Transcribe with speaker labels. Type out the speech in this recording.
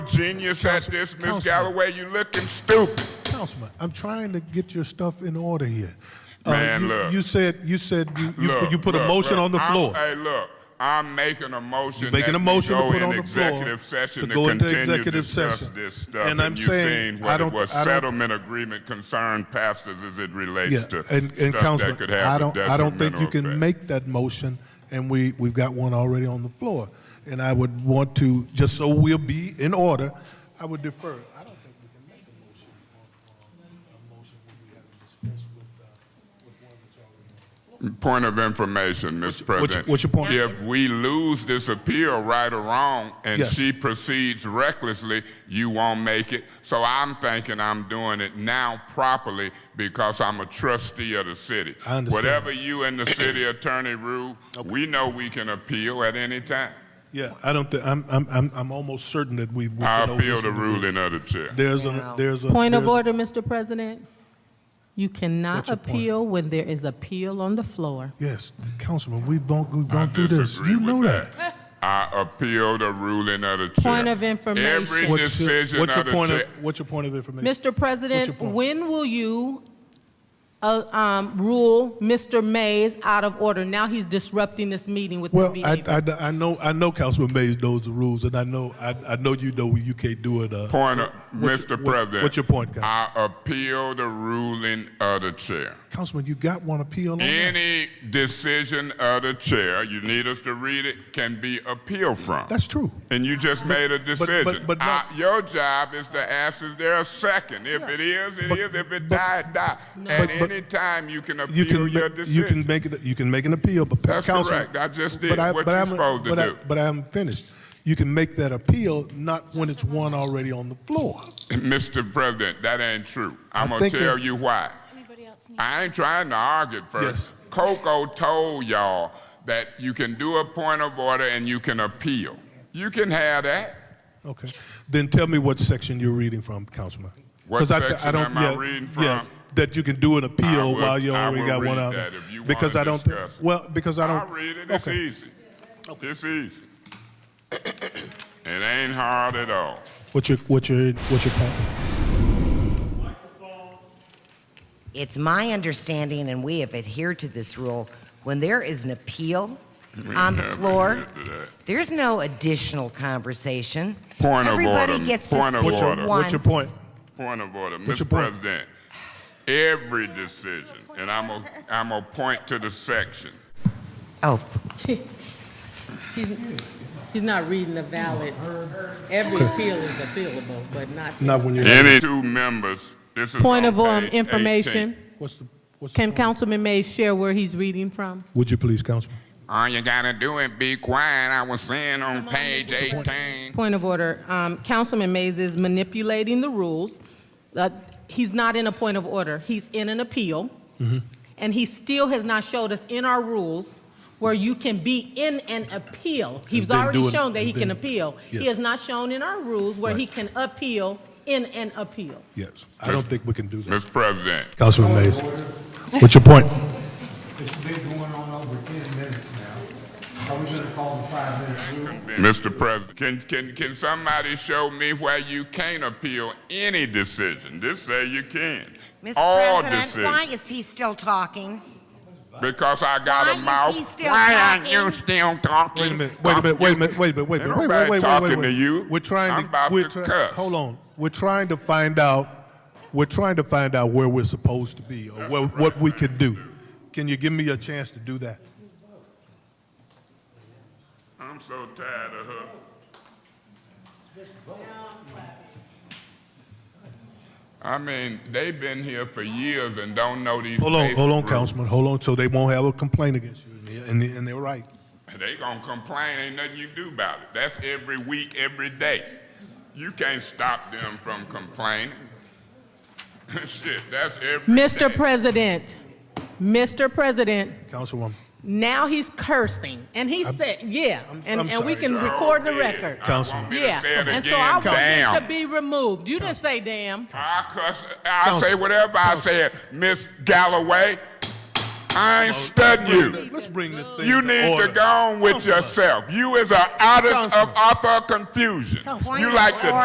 Speaker 1: Genius at this, Miss
Speaker 2: Councilman.
Speaker 1: Galloway, you looking stupid.
Speaker 2: Councilman, I'm trying to get your stuff in order here. Uh,
Speaker 1: Man,
Speaker 2: you,
Speaker 1: look.
Speaker 2: you said you said you you,
Speaker 1: Look,
Speaker 2: you put a
Speaker 1: look,
Speaker 2: motion
Speaker 1: look,
Speaker 2: on the
Speaker 1: I'm-
Speaker 2: floor.
Speaker 1: Hey, look, I'm making a motion.
Speaker 2: You're making
Speaker 1: that
Speaker 2: a motion
Speaker 1: we
Speaker 2: to
Speaker 1: go
Speaker 2: put
Speaker 1: in
Speaker 2: on the floor
Speaker 1: executive session
Speaker 2: to
Speaker 1: to
Speaker 2: go into
Speaker 1: continue
Speaker 2: executive
Speaker 1: discuss
Speaker 2: session.
Speaker 1: This stuff,
Speaker 2: And I'm
Speaker 1: you
Speaker 2: saying,
Speaker 1: seen
Speaker 2: I
Speaker 1: what it
Speaker 2: don't-
Speaker 1: was
Speaker 2: I don't-
Speaker 1: settlement agreement concern passes as it relates
Speaker 2: yeah,
Speaker 1: to
Speaker 2: and, and
Speaker 1: stuff
Speaker 2: Councilman,
Speaker 1: that could have
Speaker 2: I
Speaker 1: a
Speaker 2: don't I don't think you can
Speaker 1: detrimental effect.
Speaker 2: make that motion, and we we've got one already on the floor, and I would want to just so we'll be in order. I would defer. I don't think we can make a motion on, on a motion when we haven't discussed with uh, with one that's already. on.
Speaker 1: Point of information, Mr.
Speaker 2: your-
Speaker 1: President.
Speaker 2: what's your point?
Speaker 1: If we lose this appeal, right or wrong, and
Speaker 2: Yes.
Speaker 1: she proceeds recklessly, you won't make it. So I'm thinking I'm doing it now properly because I'm a trustee of the city.
Speaker 2: I understand.
Speaker 1: Whatever you and the city attorney rule, we know we can appeal at any time.
Speaker 2: Yeah, I don't think I'm I'm I'm I'm almost certain that we. we
Speaker 1: I
Speaker 2: can
Speaker 1: appeal the
Speaker 2: overturn
Speaker 1: ruling of the chair.
Speaker 2: There's a there's a
Speaker 3: Point of
Speaker 2: there's-
Speaker 3: order, Mr. President. You
Speaker 2: What's
Speaker 3: cannot
Speaker 2: your point?
Speaker 3: appeal when there is appeal on the floor.
Speaker 2: Yes, Councilman, we've gone, we've
Speaker 1: I
Speaker 2: gone through this.
Speaker 1: disagree
Speaker 2: You
Speaker 1: with
Speaker 2: know that.
Speaker 1: I appeal the ruling of the chair.
Speaker 3: Point of information.
Speaker 1: Every
Speaker 3: What's
Speaker 2: What's your,
Speaker 1: decision
Speaker 2: what's your
Speaker 1: of the
Speaker 2: point of,
Speaker 1: chair.
Speaker 2: what's your point of information?
Speaker 3: Mr.
Speaker 2: your
Speaker 3: President,
Speaker 2: point?
Speaker 3: when will you uh, um, rule Mr. Mays out of order? Now he's disrupting this meeting with his
Speaker 2: Well, I,
Speaker 3: behavior.
Speaker 2: I, I know, I know Councilman Mays knows the rules, and I know, I, I know you know you can't do it, uh.
Speaker 1: Point of,
Speaker 2: what's
Speaker 1: Mr.
Speaker 2: your- what-
Speaker 1: President.
Speaker 2: What's your point, Councilman?
Speaker 1: I appeal the ruling of the chair.
Speaker 2: Councilman, you got one appeal on that?
Speaker 1: Any decision of the chair, you need us to read it, can be appealed from.
Speaker 2: That's true.
Speaker 1: and you just made a decision.
Speaker 2: but- but not-
Speaker 1: I- your job is to ask, is there a second? If it is, it is.
Speaker 2: But-
Speaker 1: If it
Speaker 2: but-
Speaker 1: die, it die. At
Speaker 2: But- but-
Speaker 1: any time, you can appeal
Speaker 2: You can,
Speaker 1: your
Speaker 2: ma-
Speaker 1: decision.
Speaker 2: you can make it, you can make an appeal, but
Speaker 1: That's
Speaker 2: Councilman.
Speaker 1: correct. I just did
Speaker 2: but I-
Speaker 1: what
Speaker 2: but
Speaker 1: you're
Speaker 2: I'm-
Speaker 1: supposed to
Speaker 2: but I-
Speaker 1: do.
Speaker 2: But I'm finished. You can make that appeal, not when it's one already on the floor.
Speaker 1: Mr. President, that ain't true. I'm
Speaker 2: I
Speaker 1: gonna
Speaker 2: think
Speaker 1: tell
Speaker 2: it-
Speaker 1: you why.
Speaker 4: Anybody else need?
Speaker 1: I ain't trying to argue at first.
Speaker 2: Yes.
Speaker 1: Coco told y'all that you can do a point of order and you can appeal. You can have that.
Speaker 2: Okay. Then tell me what section you're reading from, Councilman.
Speaker 1: What
Speaker 2: 'Cause th-
Speaker 1: section am I reading
Speaker 2: Yeah,
Speaker 1: from?
Speaker 2: that you can do an appeal
Speaker 1: I would-
Speaker 2: while you
Speaker 1: I
Speaker 2: already
Speaker 1: will
Speaker 2: got one
Speaker 1: read
Speaker 2: out.
Speaker 1: that if you
Speaker 2: Because
Speaker 1: wanna
Speaker 2: I don't, thi-
Speaker 1: discuss it.
Speaker 2: well, because I
Speaker 1: I'll
Speaker 2: don't.
Speaker 1: read it. It's
Speaker 2: okay.
Speaker 1: easy. It's easy. It ain't hard at all.
Speaker 2: What's your, what's your, what's your point?
Speaker 5: It's my understanding, and we have adhered to this rule, when there is an appeal on the
Speaker 1: have
Speaker 5: floor,
Speaker 1: adhered to that.
Speaker 5: there's no additional conversation.
Speaker 1: Point of
Speaker 5: Everybody
Speaker 1: order.
Speaker 5: gets to
Speaker 1: Point of
Speaker 5: speak
Speaker 2: What's your-
Speaker 1: order.
Speaker 2: What's your
Speaker 5: once.
Speaker 2: point?
Speaker 1: Point of order,
Speaker 2: What's your
Speaker 1: Mr.
Speaker 2: point?
Speaker 1: President. Every decision, and I'm a, I'm a point to the section.
Speaker 5: Oh, f-
Speaker 3: He's- He's not reading the valid, every appeal is appealable, but not.
Speaker 2: Not when you're,
Speaker 1: Any two members, this is
Speaker 3: Point of
Speaker 1: on
Speaker 3: um,
Speaker 1: page
Speaker 3: information.
Speaker 1: 18.
Speaker 2: what's the, what's the
Speaker 3: Can
Speaker 2: point?
Speaker 3: Councilman Mays share where he's reading from?
Speaker 2: Would you please, Councilman?
Speaker 1: All you gotta do is be quiet. I was saying on page 18.
Speaker 3: Point of order. Um, Councilman Mays is manipulating the rules. Uh, He's not in a point of order. He's in an appeal.
Speaker 2: Mm-hmm.
Speaker 3: And he still has not showed us in our rules where you can be in an appeal. He's
Speaker 2: then do
Speaker 3: already
Speaker 2: an-
Speaker 3: shown that he
Speaker 2: and
Speaker 3: can
Speaker 2: then-
Speaker 3: appeal. He
Speaker 2: yeah.
Speaker 3: has not shown in our rules where he
Speaker 2: Right.
Speaker 3: can appeal in an appeal.
Speaker 2: Yes. I don't think we can do that.
Speaker 1: Mr. President,
Speaker 2: Councilman Mays, what's your point?
Speaker 6: It's been going on over ten minutes now. Are we gonna call the five-minute rule?
Speaker 1: Mr. President, can, can, can somebody show me where you can't appeal any decision? This say you can.
Speaker 5: Mr.
Speaker 1: All
Speaker 5: President, why
Speaker 1: decisions.
Speaker 5: is he still talking?
Speaker 1: Because I got
Speaker 5: Why
Speaker 1: a
Speaker 5: is
Speaker 1: mouth.
Speaker 5: he still
Speaker 1: why are
Speaker 5: talking?
Speaker 1: you still talking?
Speaker 2: Wait a minute, wait a minute, wait a minute, wait a minute, wait a minute, wait, wait, wait, wait, wait,
Speaker 1: Talking
Speaker 2: wait.
Speaker 1: to you.
Speaker 2: We're trying
Speaker 1: I'm
Speaker 2: to,
Speaker 1: about
Speaker 2: we're
Speaker 1: to
Speaker 2: try-
Speaker 1: cuss.
Speaker 2: Hold on, we're trying to find out, we're trying to find out where we're supposed to be or what, what we can do. Can you give me a chance to do that?
Speaker 1: I'm so tired of her. I mean, they've been here for years and don't know these.
Speaker 2: Hold on,
Speaker 1: basic
Speaker 2: hold on,
Speaker 1: rules.
Speaker 2: Councilman, hold on, so they won't have a complaint against you, and they- and, they- and they're right.
Speaker 1: They gonna complain, ain't nothing you do about it. That's every week, every day. You can't stop them from complaining. Shit, that's every
Speaker 3: Mr.
Speaker 1: day.
Speaker 3: President, Mr. President,
Speaker 2: Councilwoman,
Speaker 3: now he's cursing. And he said, yeah,
Speaker 2: I'm- I'm
Speaker 3: and and we
Speaker 2: sorry.
Speaker 3: can
Speaker 1: Sure
Speaker 3: record the
Speaker 1: did.
Speaker 3: record.
Speaker 1: I
Speaker 2: Councilman.
Speaker 1: want me to
Speaker 3: Yeah,
Speaker 1: say it
Speaker 3: and so
Speaker 1: again.
Speaker 3: I want
Speaker 1: Damn.
Speaker 3: it to be removed. You didn't say damn.
Speaker 1: I cuss, I say
Speaker 2: Councilman.
Speaker 1: whatever I said, Miss Galloway. I ain't studying you.
Speaker 2: let's bring this thing
Speaker 1: You
Speaker 2: to
Speaker 1: need to
Speaker 2: order.
Speaker 1: go on with
Speaker 2: Councilman.
Speaker 1: yourself. You is an artist of
Speaker 2: Councilman.
Speaker 1: author confusion.
Speaker 5: Councilman.
Speaker 1: You like to